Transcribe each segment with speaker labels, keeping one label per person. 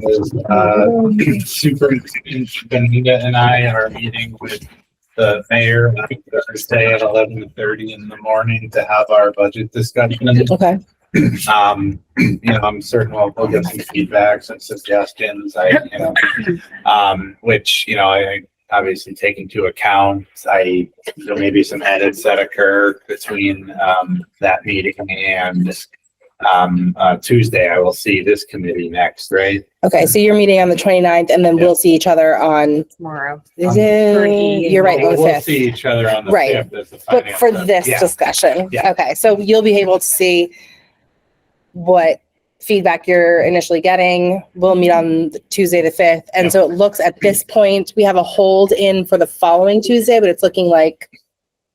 Speaker 1: is, uh, Superintendent Benita and I are meeting with the mayor on Thursday at eleven thirty in the morning to have our budget discussion.
Speaker 2: Okay.
Speaker 1: Um, you know, I'm certain we'll, we'll get some feedback, some suggestions, I, you know, um, which, you know, I I obviously take into account, I, there may be some edits that occur between, um, that meeting and, um, uh, Tuesday, I will see this committee next, right?
Speaker 2: Okay. So you're meeting on the 29th and then we'll see each other on,
Speaker 3: tomorrow.
Speaker 2: is it? You're right, on
Speaker 1: We'll
Speaker 2: the
Speaker 1: we'll
Speaker 2: 5th.
Speaker 1: see each other on the
Speaker 2: Right.
Speaker 1: fifth as the
Speaker 2: But
Speaker 1: finance.
Speaker 2: for this
Speaker 1: yeah.
Speaker 2: discussion.
Speaker 1: Yeah.
Speaker 2: Okay. So you'll be able to see what feedback you're initially getting. We'll meet on Tuesday, the 5th.
Speaker 1: Yeah.
Speaker 2: And so it looks at this point, we have a hold in for the following Tuesday, but it's looking like,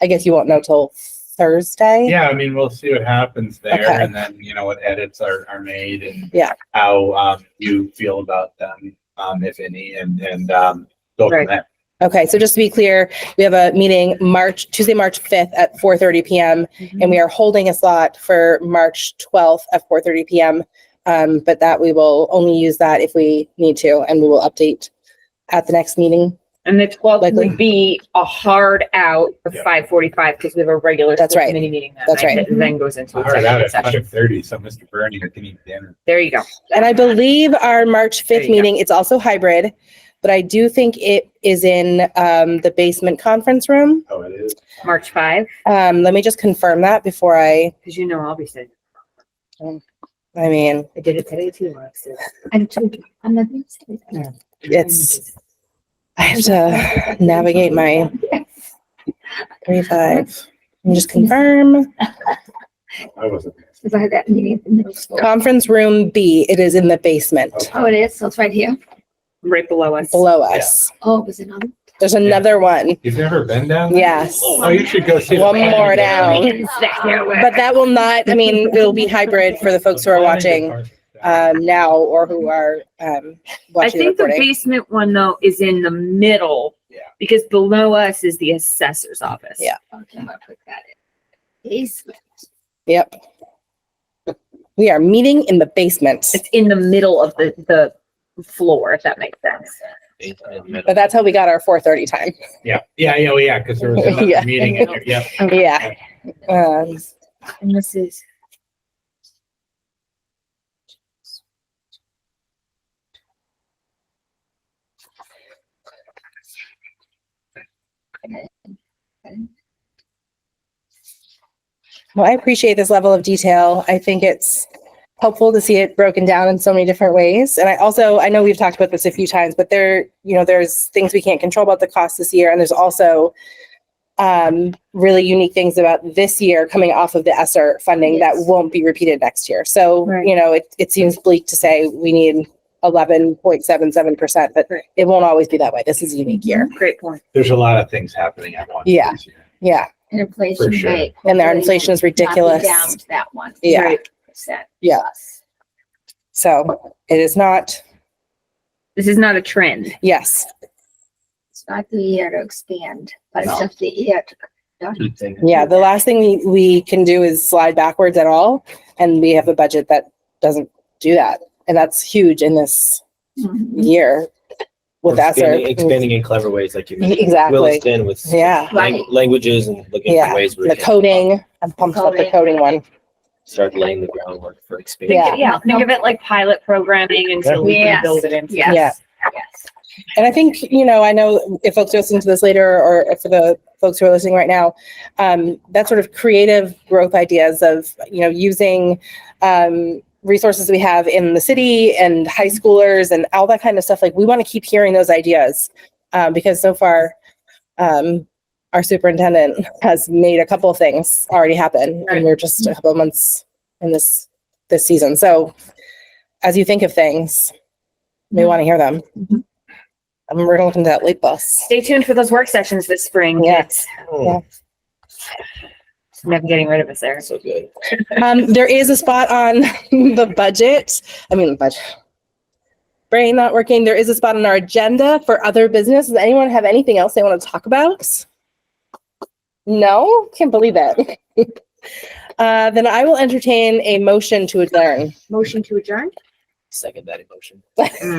Speaker 2: I guess you won't know till Thursday.
Speaker 1: Yeah, I mean, we'll see what happens there
Speaker 2: Okay.
Speaker 1: and then, you know, what edits are, are made and.
Speaker 2: Yeah.
Speaker 1: How, um, you feel about them, um, if any, and, and, um, go from
Speaker 3: Right.
Speaker 1: there.
Speaker 2: Okay. So just to be clear, we have a meeting March, Tuesday, March 5th at 4:30 PM. and we are holding a slot for March 12th at 4:30 PM. Um, but that we will only use that if we need to, and we will update at the next meeting.
Speaker 3: And the twelfth
Speaker 2: Likely.
Speaker 3: would be a hard out of
Speaker 1: Yeah.
Speaker 3: five forty-five because we have a regular.
Speaker 2: That's
Speaker 3: school
Speaker 2: right.
Speaker 3: Committee meeting that
Speaker 2: That's
Speaker 3: night
Speaker 2: right.
Speaker 3: that then goes into
Speaker 1: All right, out
Speaker 3: executive
Speaker 1: at
Speaker 3: session.
Speaker 1: hundred thirty, so Mr. Bernie, I can eat dinner.
Speaker 3: There you go.
Speaker 2: And I believe our March
Speaker 3: There
Speaker 2: 5th
Speaker 3: you go.
Speaker 2: meeting, it's also hybrid, but I do think it is in um, the basement conference room.
Speaker 1: Oh, it is.
Speaker 3: March five,
Speaker 2: Um, let me just confirm that before I,
Speaker 3: because you know I'll be sitting.
Speaker 2: I mean,
Speaker 3: I did it today too. Alexis.
Speaker 4: I'm too, I'm not. Yeah.
Speaker 2: it's, I have to navigate my three, five. Let me just confirm.
Speaker 1: I wasn't.
Speaker 4: If I had that meeting in middle school.
Speaker 2: Conference room B, it is in the basement
Speaker 4: Oh, it is, so it's right here.
Speaker 3: Right below us.
Speaker 2: below us.
Speaker 4: Oh, it was another.
Speaker 2: There's another one.
Speaker 1: You've never been down? there?
Speaker 2: Yes.
Speaker 1: Oh, you should go see. the
Speaker 2: One
Speaker 1: planning
Speaker 2: more
Speaker 1: department.
Speaker 2: down. But that will not, I mean, it'll be hybrid for the folks who are
Speaker 1: The planning
Speaker 2: watching
Speaker 1: department.
Speaker 2: um, now or who are um,
Speaker 3: I
Speaker 2: watching the
Speaker 3: think the
Speaker 2: recording.
Speaker 3: basement one though is in the middle.
Speaker 1: Yeah.
Speaker 3: Because below us is the assessor's office.
Speaker 2: Yeah.
Speaker 4: Okay, I'll put that in. Basement.
Speaker 2: Yep. We are meeting in the basement,
Speaker 3: It's in the middle of the, the floor, if that makes sense.
Speaker 2: but that's how we got our four thirty time.
Speaker 1: Yeah, yeah, yeah, oh, yeah, because there was another
Speaker 2: Yeah.
Speaker 1: meeting in there, yeah.
Speaker 2: Yeah. Um,
Speaker 3: And this is.
Speaker 2: Well, I appreciate this level of detail. I think it's helpful to see it broken down in so many different ways. And I also, I know we've talked about this a few times, but there, you know, there's things we can't control about the cost this year. And there's also um, really unique things about this year coming off of the ESSER funding that
Speaker 4: Yes.
Speaker 2: won't be repeated next year. So,
Speaker 3: Right.
Speaker 2: you know, it, it seems bleak to say we need 11.77%, but
Speaker 3: Right.
Speaker 2: it won't always be that way. This is a unique year.
Speaker 3: Great point.
Speaker 1: There's a lot of things happening at once.
Speaker 2: Yeah.
Speaker 1: this year.
Speaker 2: Yeah.
Speaker 4: And
Speaker 1: For
Speaker 4: inflation
Speaker 1: sure.
Speaker 4: rate.
Speaker 2: And their inflation is ridiculous.
Speaker 4: Down to that one.
Speaker 2: Yeah.
Speaker 3: Right.
Speaker 4: Percent.
Speaker 2: Yeah.
Speaker 4: plus.
Speaker 2: So it is not,
Speaker 3: This is not a trend.
Speaker 2: yes.
Speaker 4: It's not the year to expand, but it's
Speaker 1: No.
Speaker 4: just the year to.
Speaker 2: Yeah, the last thing we, we can do is slide backwards at all, and we have a budget that doesn't do that. And that's huge in this
Speaker 4: Mhm.
Speaker 2: year with
Speaker 5: Or expanding-
Speaker 2: ESSER.
Speaker 5: Expanding in clever ways like you mentioned. We'll
Speaker 2: Exactly.
Speaker 5: expand with s-
Speaker 2: Yeah,
Speaker 4: Right.
Speaker 5: lang- languages and looking
Speaker 2: Yeah,
Speaker 5: for ways. we
Speaker 2: the
Speaker 5: can
Speaker 2: coding, I'm pumped about the coding one.
Speaker 5: Start laying the groundwork for
Speaker 2: Yeah.
Speaker 5: expansion.
Speaker 3: Yeah, think of it like pilot programming until we can
Speaker 4: Yes.
Speaker 3: build it into.
Speaker 4: Yes.
Speaker 2: Yeah.
Speaker 4: Yes.
Speaker 2: And I think, you know, I know if folks are listening to this later or for the folks who are listening right now, um, that sort of creative growth ideas of, you know, using um, resources we have in the city and high schoolers and all that kind of stuff. Like, we want to keep hearing those ideas um, because so far, um, our superintendent has made a couple of things already happen, and we're just a couple of months in this this season. So, as you think of things, we want to hear them. I'm we're gonna look into that late bus.
Speaker 3: Stay tuned for those work sessions this spring.
Speaker 2: Yes.
Speaker 5: Oh,
Speaker 3: Never getting rid of us there.
Speaker 5: So good.
Speaker 2: Um, there is a spot on the budget. I mean, budget. Brain not working. There is a spot on our agenda for other business. Does anyone have anything else they want to talk about? No, can't believe it. Uh, then I will entertain a motion to adjourn.
Speaker 3: Motion to adjourn?
Speaker 5: second that emotion.